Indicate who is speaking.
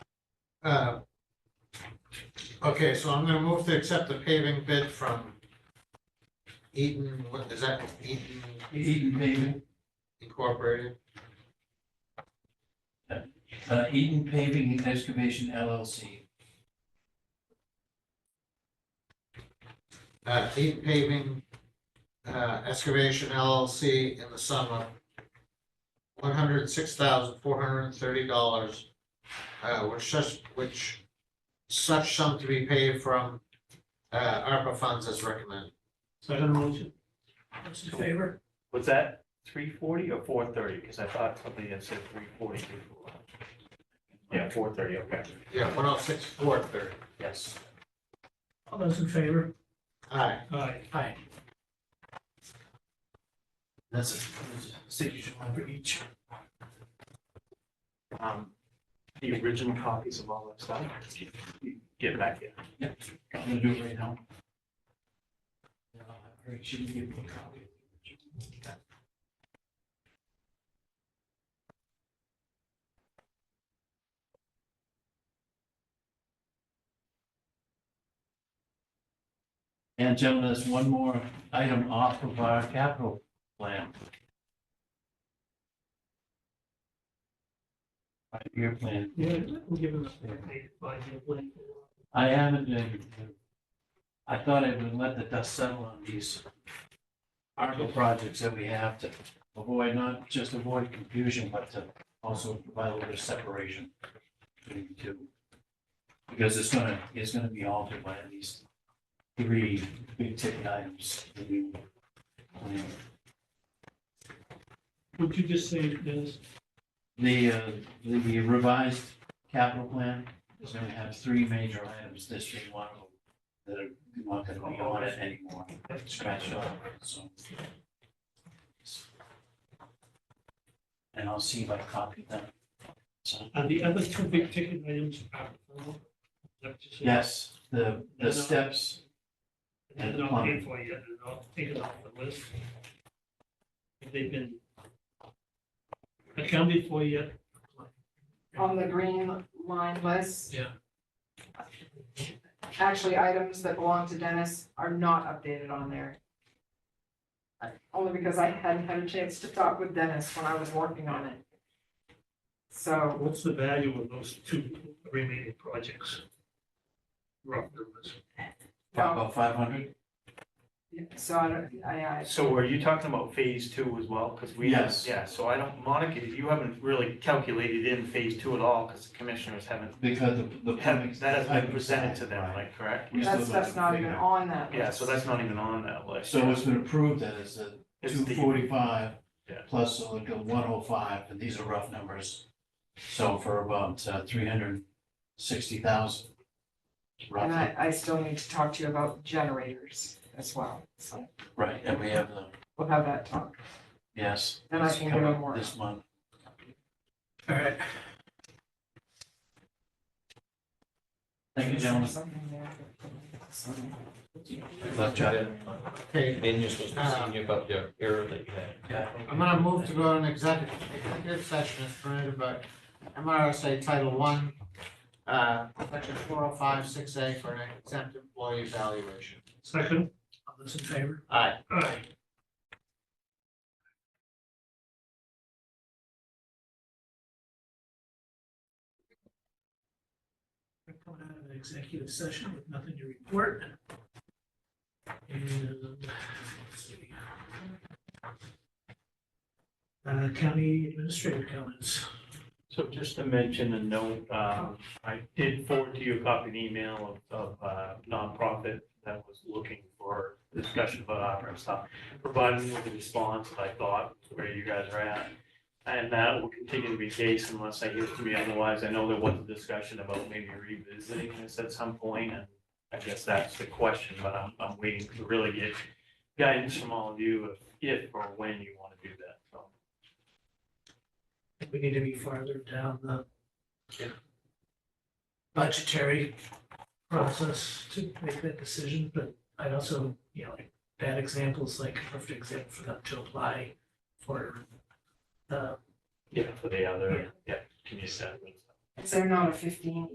Speaker 1: Uh, Okay, so I'm gonna move to accept the paving bid from Eaton, what is that, Eaton
Speaker 2: Eaton paving,
Speaker 1: Incorporated?
Speaker 2: uh, Eaton Paving and Excavation LLC.
Speaker 1: Uh, Eaton Paving, uh, Excavation LLC in the sum of one hundred six thousand four hundred and thirty dollars, uh, which such, which such sum to be paid from, uh, ARPA funds as recommended.
Speaker 3: Second motion.
Speaker 4: Those in favor?
Speaker 3: Was that three forty or four thirty? Because I thought somebody had said three forty before. Yeah, four thirty, okay,
Speaker 1: Yeah, one oh six four thirty.
Speaker 3: yes.
Speaker 4: All those in favor?
Speaker 1: Aye.
Speaker 4: Aye. Aye.
Speaker 1: That's it.
Speaker 4: Signature line for each.
Speaker 3: Um, the original copies of all that stuff. Get back here.
Speaker 2: Yep, I'm gonna do it right now. Uh, All right, she can give me a copy. And gentlemen, there's one more item off of our capital plan. Five-year plan.
Speaker 4: Yeah, we'll give them a paid five-year plan.
Speaker 2: I haven't been. I thought I would let the dust settle on these ARPA projects that we have to avoid, not just avoid confusion, but to also provide a little bit of separation between the two. Because it's gonna, it's gonna be altered by these three big ticket items. that we plan.
Speaker 4: Would you just say, Dennis,
Speaker 2: The, uh, the revised capital plan is gonna have three major items this year, one of them that are not gonna be on it anymore, scratched off, so. And I'll see if I copied them. So,
Speaker 4: are the other two big ticket items uh, out?
Speaker 2: yes, the, the steps,
Speaker 4: They're not paid for yet, they're not taken off the list. Have they been accounted for yet?
Speaker 5: on the green line list.
Speaker 4: Yeah.
Speaker 5: Actually, items that belong to Dennis are not updated on there. Only because I hadn't had a chance to talk with Dennis when I was working on it. So
Speaker 4: What's the value of those two remaining projects? Rough numbers.
Speaker 2: about five hundred?
Speaker 5: um, So I don't, I, I,
Speaker 3: So are you talking about phase two as well? Because we.
Speaker 2: Yes.
Speaker 3: Yeah, so I don't, Monica, you haven't really calculated in phase two at all because the commissioners haven't,
Speaker 2: Because the, the.
Speaker 3: haven't, that hasn't been presented to them, like, correct?
Speaker 2: We still
Speaker 5: that stuff's not even on that list.
Speaker 3: Yeah, so that's not even on that list.
Speaker 2: So what's been approved then is the
Speaker 3: It's
Speaker 2: two
Speaker 3: the-
Speaker 2: forty-five
Speaker 3: Yeah.
Speaker 2: plus the one oh five, and these are rough numbers. So for about uh, three hundred sixty thousand.
Speaker 5: And
Speaker 2: Roughly,
Speaker 5: I, I still need to talk to you about generators as well, so
Speaker 2: right, and we have the,
Speaker 5: we'll have that talk.
Speaker 2: yes.
Speaker 5: And I
Speaker 2: it's
Speaker 5: can
Speaker 2: come
Speaker 5: do
Speaker 2: up
Speaker 5: more.
Speaker 2: This month,
Speaker 1: All right.
Speaker 2: thank you, gentlemen.
Speaker 5: Something there.
Speaker 2: Left chat.
Speaker 1: Okay,
Speaker 6: Then you're supposed to see you about the error that you had.
Speaker 2: Yeah.
Speaker 1: I'm gonna move to go to an executive, executive session as permitted by MRSA Title One, uh, section four oh five six A for an exempt employee evaluation.
Speaker 4: Second, all those in favor?
Speaker 1: Aye.
Speaker 4: Aye. We're coming out of an executive session with nothing to report. And, uh, let's see. Uh, county administrator comments.
Speaker 3: So just to mention a note, um, I did forward to you a copy of the email of, of uh, nonprofit that was looking for discussion about opera and stuff, providing you with a response, I thought, where you guys are at. And that will continue to be the case unless I hear from you otherwise. I know there was a discussion about maybe revisiting this at some point, and I guess that's the question, but I'm, I'm waiting to really get guidance from all of you if, if or when you want to do that, so.
Speaker 4: I think We need to be farther down the budgetary process to make that decision, but I'd also, you know, like bad examples, like a perfect example for them to apply for uh
Speaker 3: Yeah, for the other, yeah, community center.
Speaker 5: Is there not a fifteen